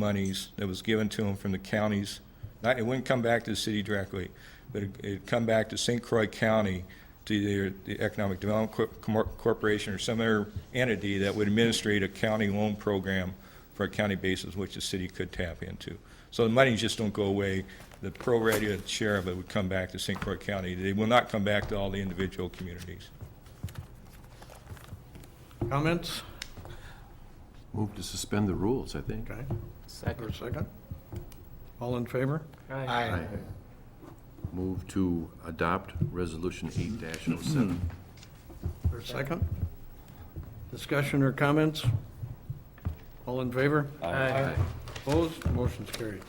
monies that was given to them from the counties. Not, it wouldn't come back to the city directly, but it- it'd come back to St. Croix County, to either the Economic Development Cor- Cor- Corporation or some other entity that would administrate a county loan program for a county basis, which the city could tap into. So the money just don't go away. The pro rata share of it would come back to St. Croix County. They will not come back to all the individual communities. Comments? Move to suspend the rules, I think. Okay, for a Second. second. All in favor? Aye. Aye. Move to adopt Resolution 8-07. For a second. Discussion or comments? All in favor? Aye. Opposed? Motion's carried.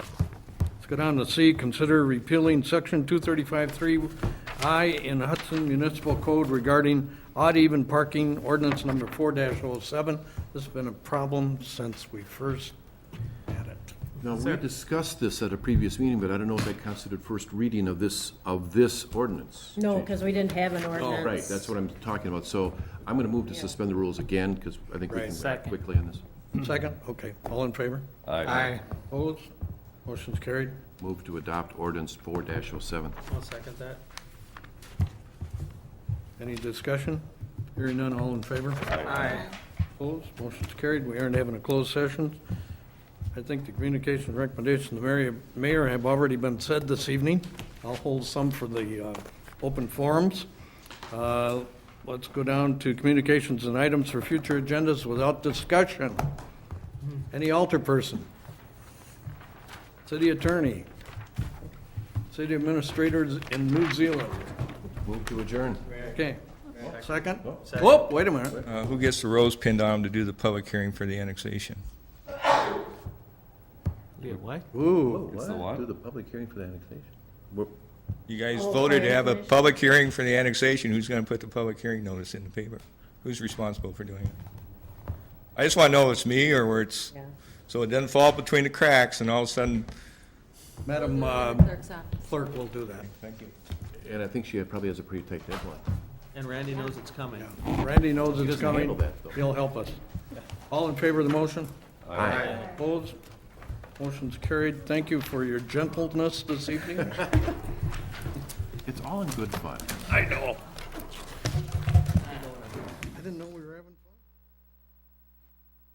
Let's go down to C, consider repealing section 235-3I in Hudson Municipal Code regarding odd-even parking ordinance number 4-07. This has been a problem since we first had it. Now, we Sir. discussed this at a previous meeting, but I don't know if that constituted first reading of this, of this ordinance. No, because we didn't have an ordinance. Oh, right, that's what I'm talking about. So I'm going to move to suspend the rules again, because I think we Right. can act Second. quickly on this. Second? Okay, all in favor? Aye. Opposed? Motion's carried. Move to adopt ordinance 4-07. I'll second that. Any discussion? Hearing none, all in favor? Aye. Opposed? Motion's carried. We aren't having a closed session. I think the communication and recommendation of the mayor- mayor have already been said this evening. I'll hold some for the uh, open forums. Uh, Let's go down to communications and items for future agendas without discussion. Any alter person? City attorney? City administrators in New Zealand? Move to adjourn. Okay. Second? Whoop, wait a minute. Uh, Who gets the rose pinned on them to do the public hearing for the annexation? Yeah, what? Ooh. It's the what? Do the public hearing for the annexation. We're- You guys Oh, voted to planning have a commission. public hearing for the annexation. Who's going to put the public hearing notice in the paper? Who's responsible for doing it? I just want to know if it's me or where it's, Yeah. so it doesn't fall between the cracks and all of a sudden, Madam uh, Clerk's office. Clerk will do that. thank you. And I think she probably has a pretty tight deadline. And Randy knows it's coming. Randy knows it's doesn't handle coming. that, though. He'll help us. All in favor of the motion? Aye. Opposed? Motion's carried. Thank you for your gentleness this evening. It's all in good fun. I know.